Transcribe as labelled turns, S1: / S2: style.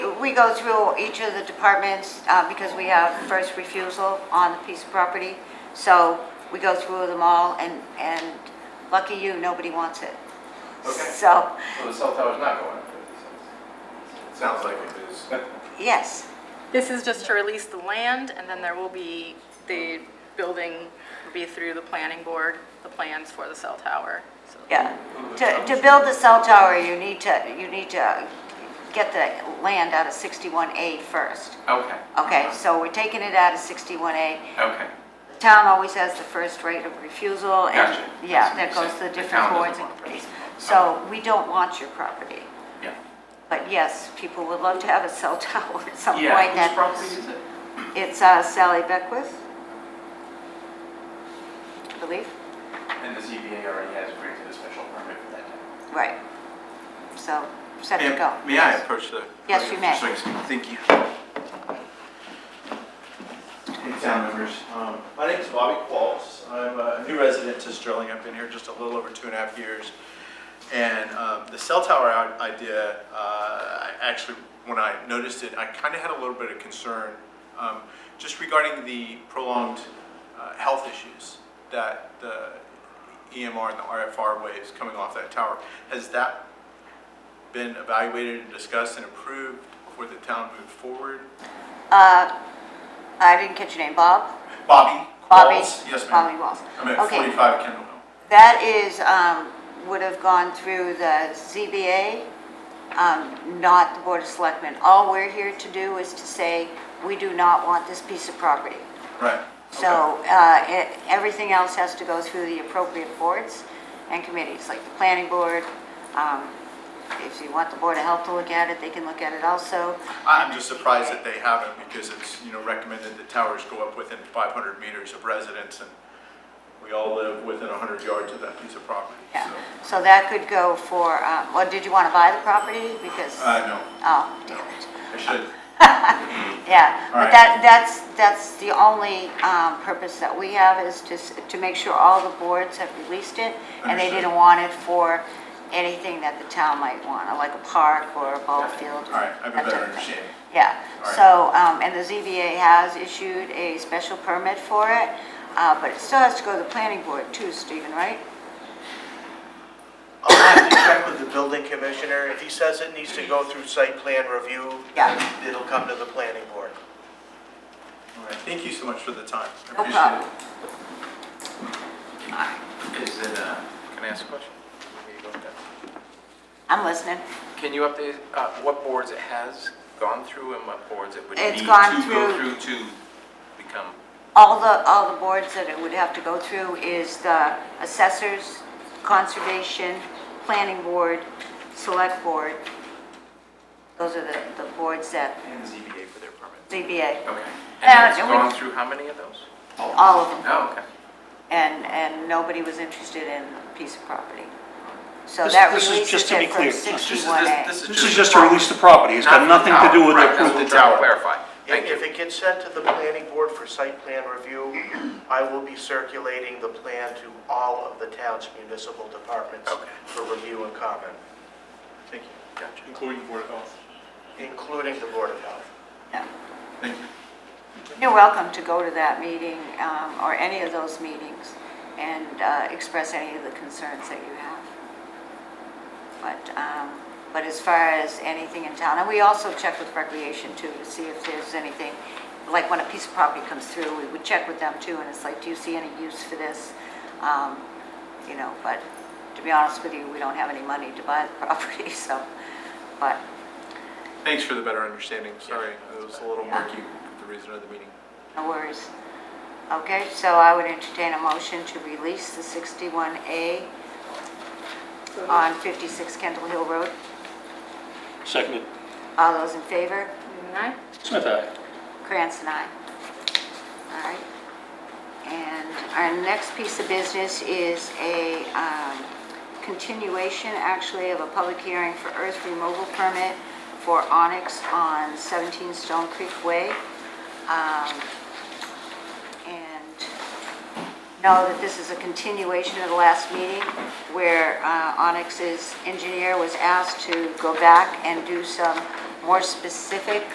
S1: we go through each of the departments, uh, because we have first refusal on the piece of property. So we go through them all, and, and lucky you, nobody wants it.
S2: Okay.
S1: So,
S2: So the cell tower's not going up fifty cents? Sounds like it is.
S1: yes,
S3: This is just to release the land, and then there will be, the building will be through the planning board, the plans for the cell tower. so-
S1: yeah. To, to build the cell tower, you need to, you need to get the land out of 61A first.
S2: Okay.
S1: Okay,
S2: Uh-huh.
S1: so we're taking it out of 61A.
S2: Okay.
S1: The Town always has the first right of refusal and,
S2: Gotcha.
S1: yeah, that
S2: That's
S1: goes
S2: what
S1: to the
S2: you're saying. The
S1: different
S2: town
S1: boards
S2: doesn't
S1: and
S2: want it.
S1: committees. So we don't want your property.
S2: Yeah.
S1: But yes, people would love to have a cell tower at some point.
S2: Yeah,
S1: Oh, That-
S2: whose property is it?
S1: It's uh, Sally Beckwith, I believe.
S2: And the ZBA already has granted a special permit for that.
S1: Right. So set to
S4: Ma'am,
S1: go.
S4: May I approach the?
S1: Yes, you may.
S4: Swings. Thank you.
S5: Hey, town members. Um, My name is Bobby Qualls. I'm a new resident to Sterling. I've been here just a little over two and a half years. And um, the cell tower i- idea, uh, I actually, when I noticed it, I kind of had a little bit of concern um, just regarding the prolonged uh, health issues that the EMR and the RFR waves coming off that tower. Has that been evaluated and discussed and approved before the town moved forward?
S1: I didn't catch your name, Bob?
S5: Bobby
S1: Bobby?
S5: Qualls? Yes,
S1: Bobby
S5: ma'am.
S1: Walls.
S5: I'm at
S1: Okay.
S5: 45 Kendall Hill.
S1: That is, um, would have gone through the ZBA, um, not the Board of Selectmen. All we're here to do is to say, we do not want this piece of property.
S5: Right.
S1: So uh, it- everything else has to go through the appropriate boards and committees, like the planning board. Um, If you want the Board of Health to look at it, they can look at it also.
S5: I'm just surprised that they haven't because it's, you know, recommended that towers go up within 500 meters of residence and we all live within 100 yards of that piece of property.
S1: Yeah.
S5: so.
S1: So that could go for, um, or did you want to buy the property? Because,
S5: Uh, no,
S1: oh, damn it.
S5: I should.
S1: Yeah,
S5: All
S1: but
S5: right.
S1: that, that's, that's the only um, purpose that we have is to, s- to make sure all the boards have released it and they
S5: Understood.
S1: didn't want it for anything that the town might want, or like a park or a ball field.
S5: All right, I have a
S1: that
S5: better
S1: type of thing.
S5: understanding.
S1: Yeah,
S5: All right.
S1: so, um, and the ZBA has issued a special permit for it, uh, but it still has to go to the planning board too, Stephen, right?
S6: I'll have to check with the building commissioner. If he says it needs to go through site plan review,
S1: Yeah.
S6: it'll come to the planning board.
S5: All right, Thank you so much for the time. I
S1: No
S5: appreciate it.
S1: problem.
S2: Is it, uh, can I ask a question? Before you go with that?
S1: I'm listening.
S2: Can you update, uh, what boards it has gone through and what boards it would
S1: It's
S2: need to
S1: gone
S2: go
S1: through-
S2: through to become?
S1: All the, all the boards that it would have to go through is the assessors, conservation, planning board, select board. Those are the, the boards that,
S2: And ZBA for their permit.
S1: ZBA,
S2: Okay.
S1: Uh,
S2: And it's
S1: and we-
S2: gone through how many of those?
S1: all of them.
S2: Oh, okay.
S1: And, and nobody was interested in the piece of property. So
S7: This-
S1: that
S7: this is
S1: releases
S7: just to be
S1: it from
S7: clear. This is-
S2: This is-
S1: 61A.
S2: this
S7: This is just to release the property, it's got
S2: Not the
S7: nothing to do
S2: tower,
S7: with
S2: right,
S7: the
S2: that's
S7: approval.
S2: what I'm trying to Clarify, thank
S6: If- If
S2: you.
S6: it gets sent to the planning board for site plan review, I will be circulating the plan to all of the town's municipal departments
S2: Okay.
S6: for review and comment,
S5: Thank you.
S2: Gotcha.
S5: Including Board of Health.
S6: including the Board of Health.
S1: Yeah.
S5: Thank you.
S1: You're welcome to go to that meeting, um, or any of those meetings, and uh, express any of the concerns that you have. But, um, but as far as anything in town, and we also check with recreation too, to see if there's anything, like when a piece of property comes through, we would check with them too, and it's like, do you see any use for this? Um, You know, but to be honest with you, we don't have any money to buy the property, so, but,
S5: Thanks for the better understanding. Sorry, it was a little murky, with the reason of the meeting.
S1: No worries. Okay, so I would entertain a motion to release the 61A on 56 Kendall Hill Road.
S7: Seconded.
S1: All those in favor?
S3: Newman, aye?
S7: Smith, aye.
S1: Krantz and I. All right. And our next piece of business is a um, continuation, actually, of a public hearing for earth removal permit for Onyx on 17 Stone Creek Way. Um, And know that this is a continuation of the last meeting where uh, Onyx's engineer was asked to go back and do some more specific